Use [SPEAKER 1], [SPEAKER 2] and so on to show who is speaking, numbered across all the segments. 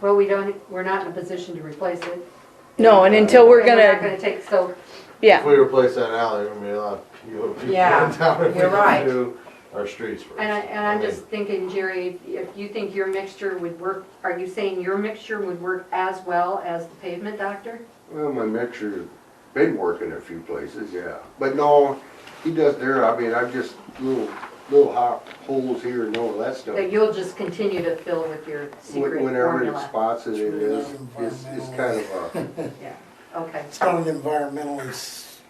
[SPEAKER 1] Well, we don't, we're not in a position to replace it.
[SPEAKER 2] No, and until we're
[SPEAKER 1] And not
[SPEAKER 2] gonna,
[SPEAKER 1] gonna take, so,
[SPEAKER 2] yeah,
[SPEAKER 3] If we replace that alley, we're gonna be a lot fewer people
[SPEAKER 4] Yeah,
[SPEAKER 3] in town if we
[SPEAKER 4] you're right.
[SPEAKER 3] don't do our streets first.
[SPEAKER 1] and I, and
[SPEAKER 3] I
[SPEAKER 1] I'm
[SPEAKER 3] mean,
[SPEAKER 1] just thinking, Jerry, if you think your mixture would work, are you saying your mixture would work as well as the pavement doctor?
[SPEAKER 5] Well, my mixer's been working a few places, yeah. But no, he does there, I mean, I've just little, little hot holes here and all that stuff.
[SPEAKER 1] That you'll just continue to fill with your secret
[SPEAKER 5] When- Whenever it
[SPEAKER 1] formula?
[SPEAKER 5] spots it, it is, it's, it's kind of a,
[SPEAKER 1] Yeah, okay.
[SPEAKER 6] It's not an environmentally s-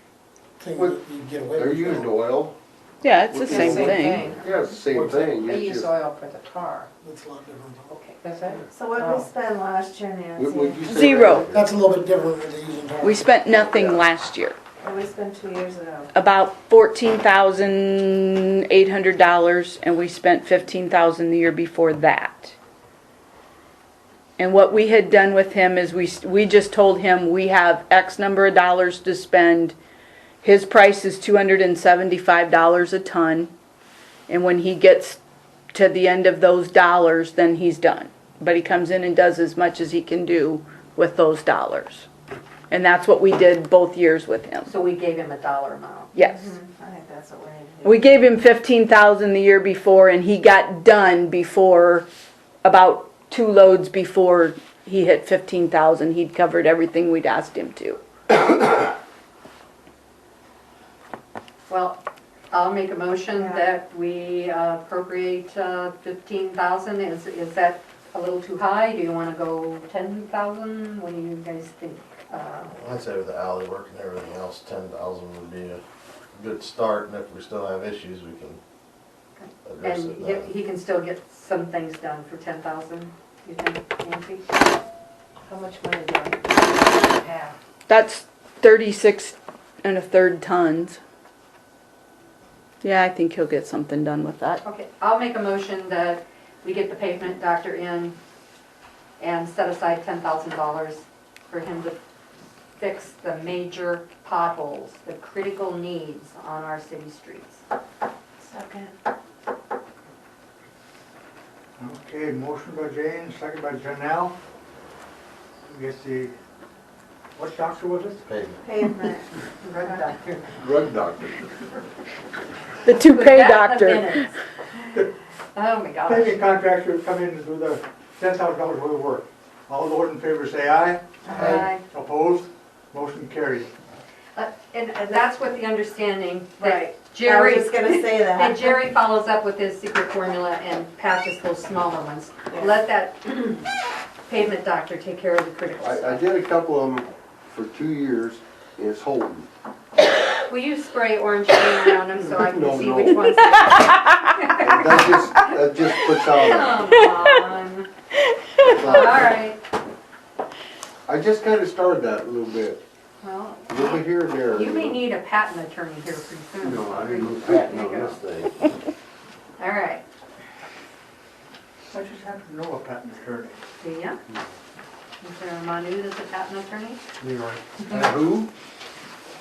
[SPEAKER 6] thing that you get away with.
[SPEAKER 5] they're using oil,
[SPEAKER 2] yeah, it's the
[SPEAKER 5] It's
[SPEAKER 2] same thing.
[SPEAKER 5] yeah, it's the same
[SPEAKER 6] What's that?
[SPEAKER 5] thing.
[SPEAKER 4] They
[SPEAKER 5] It's
[SPEAKER 4] use
[SPEAKER 5] just,
[SPEAKER 4] oil for the tar.
[SPEAKER 6] That's a lot different.
[SPEAKER 4] Okay. That's it?
[SPEAKER 7] So what did we spend last year, Nancy?
[SPEAKER 5] would would you say? that-
[SPEAKER 2] Zero.
[SPEAKER 6] That's a little bit different than using. tar.
[SPEAKER 2] We spent nothing last year,
[SPEAKER 7] What we spent two years ago?
[SPEAKER 2] about fourteen thousand eight hundred dollars, and we spent fifteen thousand the year before that. And what we had done with him is we, s- we just told him we have X number of dollars to spend. His price is two hundred and seventy-five dollars a ton. And when he gets to the end of those dollars, then he's done. But he comes in and does as much as he can do with those dollars. And that's what we did both years with him.
[SPEAKER 1] So we gave him a dollar amount.
[SPEAKER 2] Yes.
[SPEAKER 7] I think that's what we need to do.
[SPEAKER 2] We gave him fifteen thousand the year before and he got done before, about two loads before he hit fifteen thousand. He'd covered everything we'd asked him to.
[SPEAKER 1] Well, I'll make a motion
[SPEAKER 7] Yeah.
[SPEAKER 1] that we uh, appropriate uh, 15,000. Is, is that a little too high? Do you want to go 10,000? What do you guys think? Uh,
[SPEAKER 3] I'd say with the alley work and everything else, ten thousand would be a good start, and if we still have issues, we can address it
[SPEAKER 5] uh,
[SPEAKER 1] And he-
[SPEAKER 3] then.
[SPEAKER 1] he can still get some things done for 10,000, you think, Nancy?
[SPEAKER 4] How much money do I have?
[SPEAKER 2] That's thirty-six and a third tons. Yeah, I think he'll get something done with that.
[SPEAKER 1] Okay, I'll make a motion that we get the pavement doctor in and set aside ten thousand dollars for him to fix the major potholes, the critical needs on our city streets.
[SPEAKER 7] Second.
[SPEAKER 8] Okay, motion by Jane, second by Janelle. I guess the, what doctor was it?
[SPEAKER 3] Pavement.
[SPEAKER 7] Pavement.
[SPEAKER 1] Drug doctor.
[SPEAKER 5] Drug doctor.
[SPEAKER 2] The toupee
[SPEAKER 1] That's the
[SPEAKER 2] doctor.
[SPEAKER 1] minutes. Oh, my gosh.
[SPEAKER 8] Paving contractor come in and do the ten thousand dollars worth of work. All those in favor say aye.
[SPEAKER 1] Aye.
[SPEAKER 8] Opposed? Motion carried.
[SPEAKER 1] Uh, And and that's with the understanding that
[SPEAKER 7] Right.
[SPEAKER 1] Jerry.
[SPEAKER 7] I was just gonna say
[SPEAKER 1] And
[SPEAKER 7] that.
[SPEAKER 1] Jerry follows up with his secret formula and patches those smaller ones. Let that pavement doctor take care of the critical stuff.
[SPEAKER 5] I, I did a couple of them for two years, and it's holding.
[SPEAKER 1] Will you spray orange paint around them so I can
[SPEAKER 5] No,
[SPEAKER 1] see
[SPEAKER 5] no.
[SPEAKER 1] which ones?
[SPEAKER 5] And That just, that just puts out,
[SPEAKER 1] Come on.
[SPEAKER 5] puts
[SPEAKER 1] All
[SPEAKER 5] out.
[SPEAKER 1] right,
[SPEAKER 5] I just kinda started that a little bit,
[SPEAKER 1] well,
[SPEAKER 5] a little bit here and there.
[SPEAKER 1] you may need a patent attorney here pretty soon.
[SPEAKER 5] No, I didn't lose that, no, this thing.
[SPEAKER 1] All right,
[SPEAKER 8] I just happen to know a patent attorney.
[SPEAKER 1] do ya? Is there a Manu that's a patent attorney?
[SPEAKER 8] Leroy.
[SPEAKER 5] Who?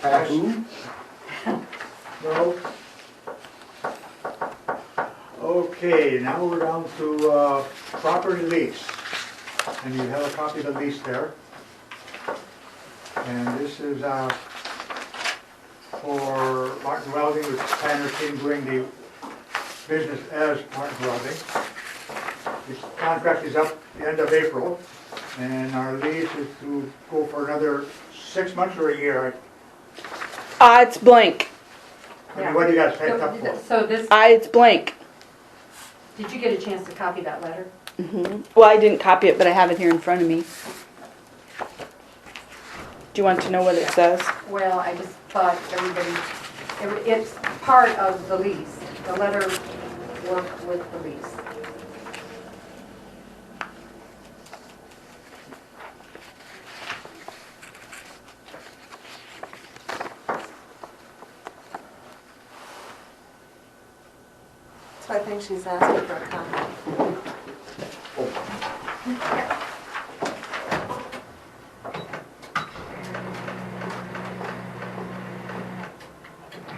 [SPEAKER 5] Who?
[SPEAKER 8] No? Okay, now we're down to uh, property lease. And you have a copy of the lease there. And this is uh, for Martin Welding, which Tanner King doing the business as Martin Welding. His contract is up the end of April, and our lease is to go for another six months or a year.
[SPEAKER 2] Ah, it's blank.
[SPEAKER 8] I mean, What do you guys think up for?
[SPEAKER 1] So so this,
[SPEAKER 2] Ah, it's blank.
[SPEAKER 1] did you get a chance to copy that letter?
[SPEAKER 2] Mm-hmm. Well, I didn't copy it, but I have it here in front of me. Do you want to know what it says?
[SPEAKER 1] Well, I just thought everybody, every- it's part of the lease. The letter worked with the lease.
[SPEAKER 7] So I think she's asking for a comment.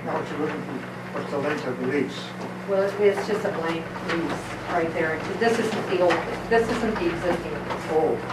[SPEAKER 8] Now, what you looking for, what's the length of the lease.
[SPEAKER 1] Well, it's just a blank lease right there. This isn't the old, this isn't the existing lease.
[SPEAKER 8] Oh.